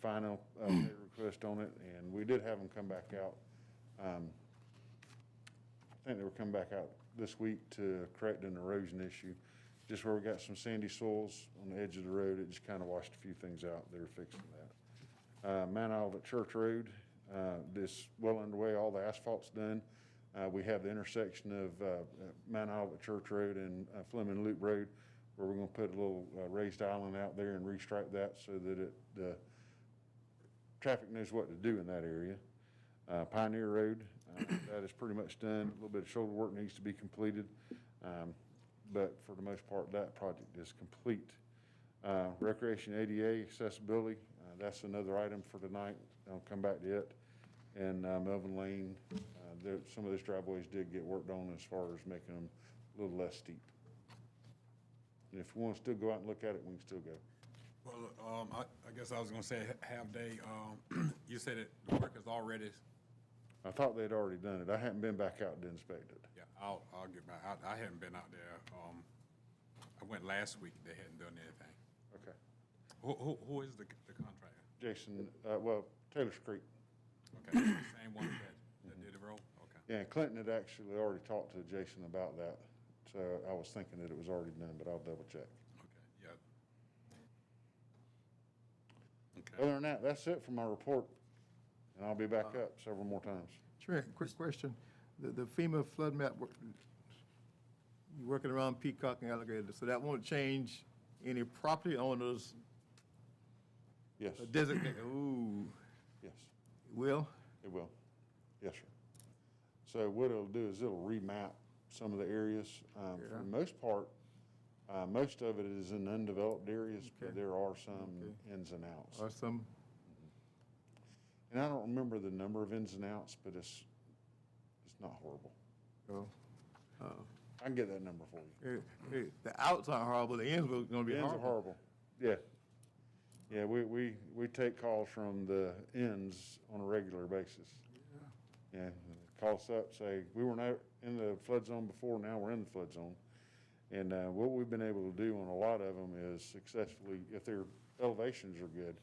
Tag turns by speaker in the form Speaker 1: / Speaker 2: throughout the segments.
Speaker 1: final uh, pay request on it, and we did have them come back out. um, I think they were coming back out this week to correct an erosion issue, just where we got some sandy soils on the edge of the road, it just kind of washed a few things out, they were fixing that. Uh, Mount Olivet Church Road, uh, this well underway, all the asphalt's done. Uh, we have the intersection of, uh, uh, Mount Olivet Church Road and uh, Fleming Loop Road, where we're gonna put a little uh, raised island out there and restripe that so that it, uh, traffic knows what to do in that area. Uh, Pioneer Road, uh, that is pretty much done. A little bit of shoulder work needs to be completed. Um, But for the most part, that project is complete. Uh, Recreation ADA accessibility, uh, that's another item for tonight. I'll come back to it. And uh, Melvin Lane, uh, there, some of those driveways did get worked on as far as making them a little less steep. And if you want to still go out and look at it, we can still go.
Speaker 2: Well, um, I, I guess I was gonna say, ha- have they, um, you said it, the work is already,
Speaker 1: I thought they'd already done it. I hadn't been back out to inspect it.
Speaker 2: yeah, I'll, I'll get back, I, I haven't been out there, um, I went last week, they hadn't done anything.
Speaker 1: Okay.
Speaker 2: Who, who, who is the, the contractor?
Speaker 1: Jason, uh, well, Taylor's Creek.
Speaker 2: Okay, it's the same one that, that did the road, okay.
Speaker 1: Yeah, and Clinton had actually already talked to Jason about that. So I was thinking that it was already done, but I'll double check.
Speaker 2: Okay, yeah. Okay,
Speaker 1: Other than that, that's it for my report. And I'll be back
Speaker 3: Uh-huh.
Speaker 1: up several more times.
Speaker 3: Sure, quick question. The the FEMA flood map, work- you're working around Peacock and Alligator, so that won't change any property owners
Speaker 1: Yes,
Speaker 3: Uh, designated, ooh,
Speaker 1: yes,
Speaker 3: will?
Speaker 1: it will. Yes, sir. So what it'll do is it'll remap some of the areas. Um, For
Speaker 3: Yeah.
Speaker 1: the most part, uh, most of it is in undeveloped areas, but
Speaker 3: Okay.
Speaker 1: there are some
Speaker 3: Okay. Uh,
Speaker 1: ins and outs.
Speaker 3: Or some,
Speaker 1: And I don't remember the number of ins and outs, but it's, it's not horrible.
Speaker 3: oh, uh,
Speaker 1: I can get that number for you.
Speaker 3: eh, eh, the outs are horrible, the ends will gonna be
Speaker 1: The ends are
Speaker 3: horrible.
Speaker 1: horrible. Yeah. Yeah, we, we, we take calls from the ends on a regular basis. Yeah, call us up, say, we were not in the flood zone before, now we're in the flood zone. And, uh, what we've been able to do on a lot of them is successfully, if their elevations are good,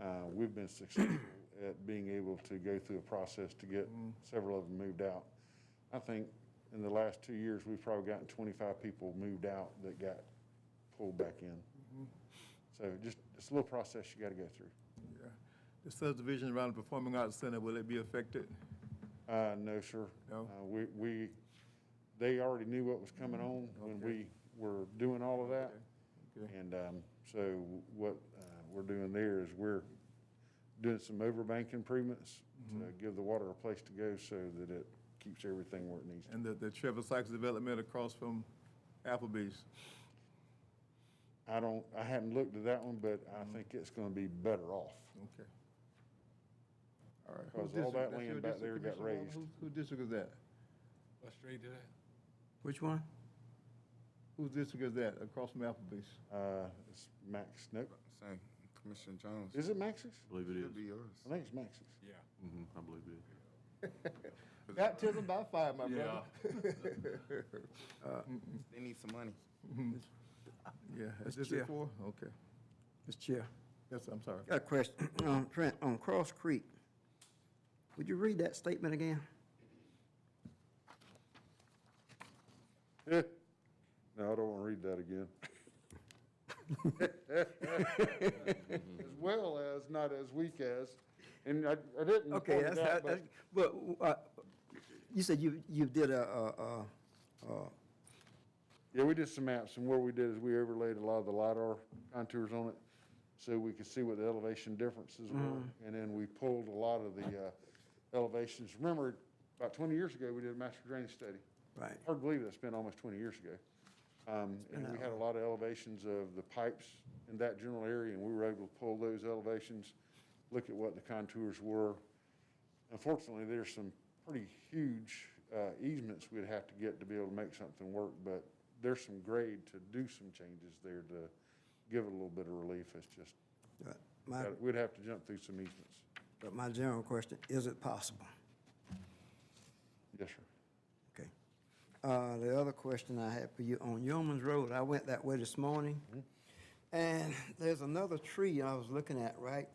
Speaker 1: uh, we've been successful at being able to go through a process to get several of them moved out. I think in the last two years, we've probably gotten twenty-five people moved out that got pulled back in. So just, it's a little process you gotta go through.
Speaker 3: Yeah. The subdivision around the Performing Arts Center, will it be affected?
Speaker 1: Uh, no, sir.
Speaker 3: No?
Speaker 1: Uh, We, we, they already knew what was coming on when we
Speaker 3: Mm-hmm. Okay.
Speaker 1: were doing all of that.
Speaker 3: Okay. Okay.
Speaker 1: And, um, so what, uh, we're doing there is we're doing some overbank improvements to
Speaker 3: Mm-hmm.
Speaker 1: give the water a place to go so that it keeps everything where it needs to.
Speaker 3: And the the Trevor Sykes development across from Applebee's?
Speaker 1: I don't, I hadn't looked at that one, but I
Speaker 3: Mm-hmm.
Speaker 1: think it's gonna be better off.
Speaker 3: Okay. All right.
Speaker 1: Because
Speaker 3: Whose
Speaker 1: all that
Speaker 3: district? That's
Speaker 1: land
Speaker 3: your
Speaker 1: back
Speaker 3: district,
Speaker 1: there got
Speaker 3: Commissioner Walden?
Speaker 1: raised.
Speaker 3: Whose- Whose district is that?
Speaker 2: what street is that?
Speaker 4: Which one?
Speaker 3: Whose district is that, across from Applebee's?
Speaker 1: Uh, it's Max, nope.
Speaker 5: Say, Commissioner Jones.
Speaker 1: Is it Max's?
Speaker 6: Believe it
Speaker 5: Should be
Speaker 6: is.
Speaker 5: yours.
Speaker 1: I think it's Max's.
Speaker 2: Yeah.
Speaker 6: Mhm, I believe it is.
Speaker 3: Baptism by fire, my brother.
Speaker 6: Yeah.
Speaker 5: They need some money.
Speaker 3: Yeah, is
Speaker 4: Mr.
Speaker 3: this
Speaker 4: Chair.
Speaker 3: it for? Okay.
Speaker 4: Mr. Chair,
Speaker 3: Yes, I'm sorry.
Speaker 4: got a question. On, Trent, on Cross Creek, would you read that statement again?
Speaker 1: No, Eh. I don't want to read that again. As well as, not as weak as, and I, I didn't
Speaker 4: Okay,
Speaker 1: point
Speaker 4: that's,
Speaker 1: it out,
Speaker 4: that-
Speaker 1: but
Speaker 4: that's, but, uh, you said you, you did a, a, a- a,
Speaker 1: Yeah, we did some maps, and what we did is we overlaid a lot of the LiDAR contours on it, so we could see what the elevation differences were,
Speaker 4: Mm.
Speaker 1: and then we pulled a lot of the uh, elevations. Remember, about 20 years ago, we did a master drainage study.
Speaker 4: right,
Speaker 1: Hard to believe that's been almost 20 years ago. Um, And we had a lot of elevations of the pipes in that general area, and we were able to pull those elevations, look at what the contours were. Unfortunately, there's some pretty huge uh, easements we'd have to get to be able to make something work, but there's some grade to do some changes there to give it a little bit of relief. It's just,
Speaker 4: but my,
Speaker 1: we'd have to jump through some easements.
Speaker 4: but my general question, is it possible?
Speaker 1: Yes, sir.
Speaker 4: Okay. Uh, the other question I had for you, on Yeoman's Road,
Speaker 1: Mm-hmm.
Speaker 4: I went that way this morning, and there's another tree I was looking at, right?